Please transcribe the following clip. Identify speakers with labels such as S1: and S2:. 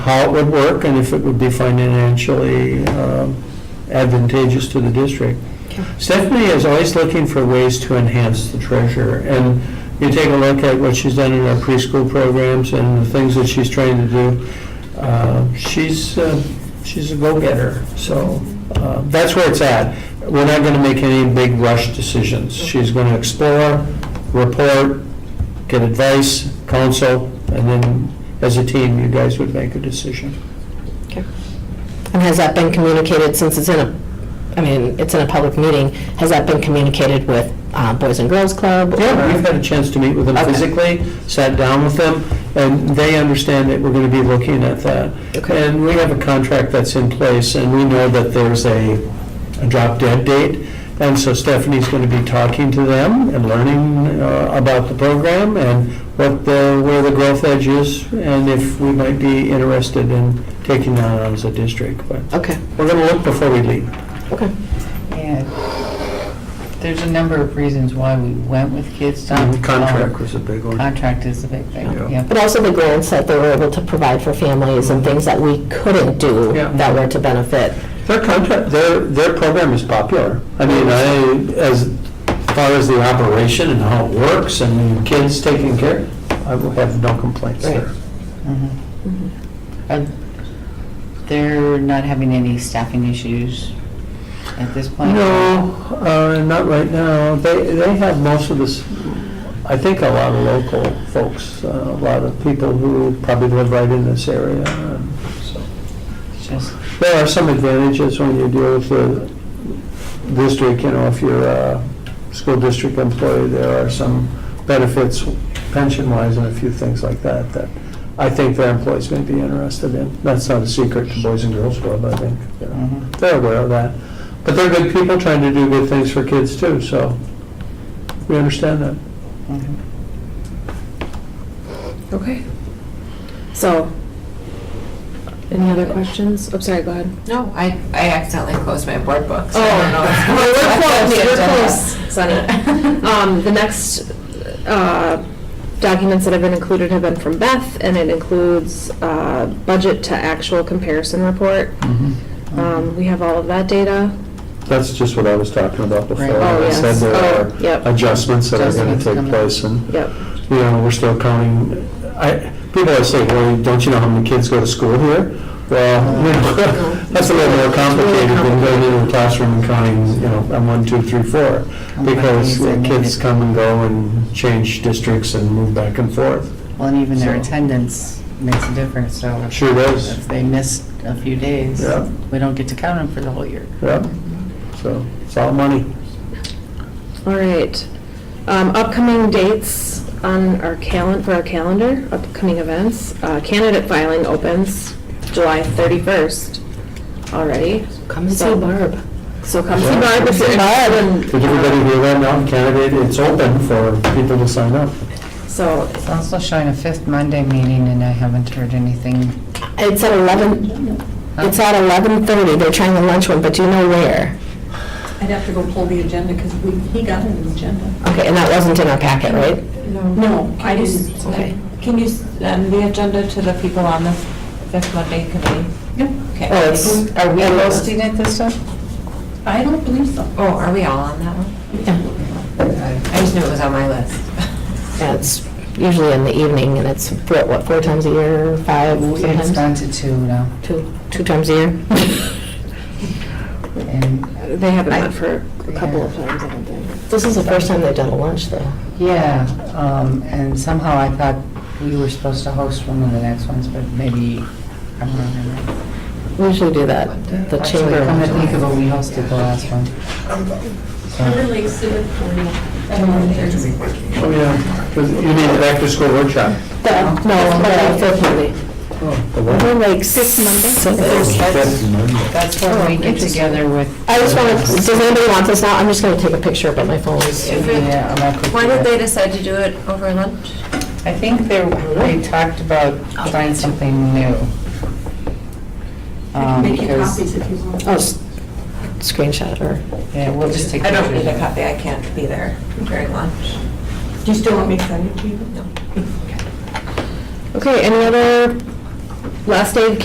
S1: how it would work and if it would be financially um, advantageous to the district. Stephanie is always looking for ways to enhance the treasure, and you take a look at what she's done in our preschool programs and the things that she's trying to do, uh, she's, uh, she's a go-getter, so uh, that's where it's at. We're not going to make any big rush decisions. She's going to explore, report, get advice, counsel, and then as a team, you guys would make a decision.
S2: And has that been communicated, since it's in a, I mean, it's in a public meeting, has that been communicated with uh, Boys and Girls Club?
S1: Yeah, we've had a chance to meet with them
S2: Okay.
S1: physically, sat down with them, and they understand that we're going to be looking at that.
S2: Okay.
S1: And we have a contract that's in place, and we know that there's a, a drop dead date. And so Stephanie's going to be talking to them and learning uh, about the program and what the, where the growth edge is, and if we might be interested in taking that on as a district. But
S2: Okay,
S1: we're going to look before we leave.
S2: okay.
S3: Yeah, there's a number of reasons why we went with Kids Done.
S2: Um,
S3: Um,
S1: Contract was a big one.
S3: Contract is the big thing,
S1: Yeah.
S3: yeah.
S2: But also the grants that they were able to provide for families and things that we couldn't do
S1: Mhm. Yeah.
S2: that were to benefit.
S1: Their contract, their, their program is popular. I mean, I, as far as the operation and how it works and kids taken care, I will have no complaints
S2: Right.
S1: there.
S3: Mhm.
S2: Mm-hmm.
S3: Are- They're Mm-hmm. not having any staffing issues at this point?
S1: No, uh, not right now. They, they have most of this, I think a lot of local folks, uh, a lot of people who probably live right in this area. and so.
S3: It's Just,
S1: There are some advantages when you deal with the district, you know, if you're a school district employee, there are some benefits pension-wise and a few things like that that I think their employees may be interested in. That's not a secret to Boys and Girls Club, I think. you know.
S3: mhm.
S1: They're aware of that. But they're good people trying to do good things for kids too, so we understand that.
S3: Mhm.
S4: Okay. So, any other questions? Oh, sorry, go ahead.
S5: No, I, I accidentally closed my board book. so I don't know.
S4: Well, Oh, We're close, we're
S5: Yes.
S4: close, Sunny. Um, the next, uh, documents that have been included have been from Beth, and it includes, uh, budget to actual comparison report. Um, we have all of that data.
S1: That's just what I was talking about before.
S3: Right. Oh,
S1: I said
S4: yes.
S1: there
S4: Oh, yep.
S1: are adjustments that are going
S3: Adjustments
S1: to take
S3: coming.
S1: place and
S4: Yep.
S1: you know, we're still counting, I, people always say, well, don't you know how many kids go to school here? Well, you know, that's a little more complicated than going into the classroom and counting, you know, I'm one, two, three, four. Because
S3: Companies and
S1: kids come and go and change districts and move back and forth.
S3: Well, and even their
S1: So-
S3: attendance makes a difference, so.
S1: Sure does.
S3: If they miss a few days,
S1: Yeah.
S3: we don't get to count them for the whole year.
S1: Yep, so it's all money.
S4: All right. Um, Upcoming dates on our calendar, for our calendar, upcoming events. Uh, Candidate filing opens July 31st already.
S2: Come and see Barb.
S4: So come see Barb if you're
S1: Did everybody hear that now? Candidate, it's open for people to sign up.
S4: So,
S3: It's also showing a fifth Monday meeting, and I haven't heard anything.
S2: It's at 11, it's at 11:30, they're trying the lunch one, but do you know where?
S6: I'd have to go pull the agenda because we, he got an agenda.
S2: Okay, and that wasn't in our packet, right?
S6: No, I didn't.
S2: Okay.
S5: Can you send the agenda to the people on the fifth Monday committee? Okay.
S2: Oh, it's,
S3: Are we hosting it this time?
S6: I don't believe so.
S5: Oh, are we all on that one? I just knew it was on my list.
S2: yeah, it's usually in the evening, and it's, what, what, four times a year, five
S3: It's
S2: sometimes?
S3: gone to two now,
S2: Two, two times a year?
S3: and
S4: they haven't met for a couple of times, I don't think.
S2: This is the first time they've done a lunch, though.
S3: Yeah, um, and somehow I thought we were supposed to host one of the next ones, but maybe I'm wrong.
S2: We usually do that, the
S3: Actually,
S2: chamber.
S3: come to think of it, we hosted the last one. So,
S6: Everly Civic
S1: Oh, yeah, 'cause you need an after-school workshop.
S2: The- No, the fifth Monday.
S1: The what?
S2: Fifth
S3: That's-
S2: Monday?
S3: that's-
S1: Monday.
S3: That's when we get together with.
S2: I just want to, does anybody want this now? I'm just going to take a picture, but my phone is.
S5: If it-
S3: Yeah, I'm not-
S5: Why did they decide to do it over lunch?
S3: I think they, they talked about trying something new.
S6: I
S3: Um,
S6: can make you
S3: because-
S6: copies if you want.
S2: Oh, s- screenshot or,
S3: Yeah, we'll just take
S5: I don't need a
S3: pictures.
S5: copy, I can't be there during lunch.
S6: Do you still want me to send it to you?
S2: okay, any other
S4: last day of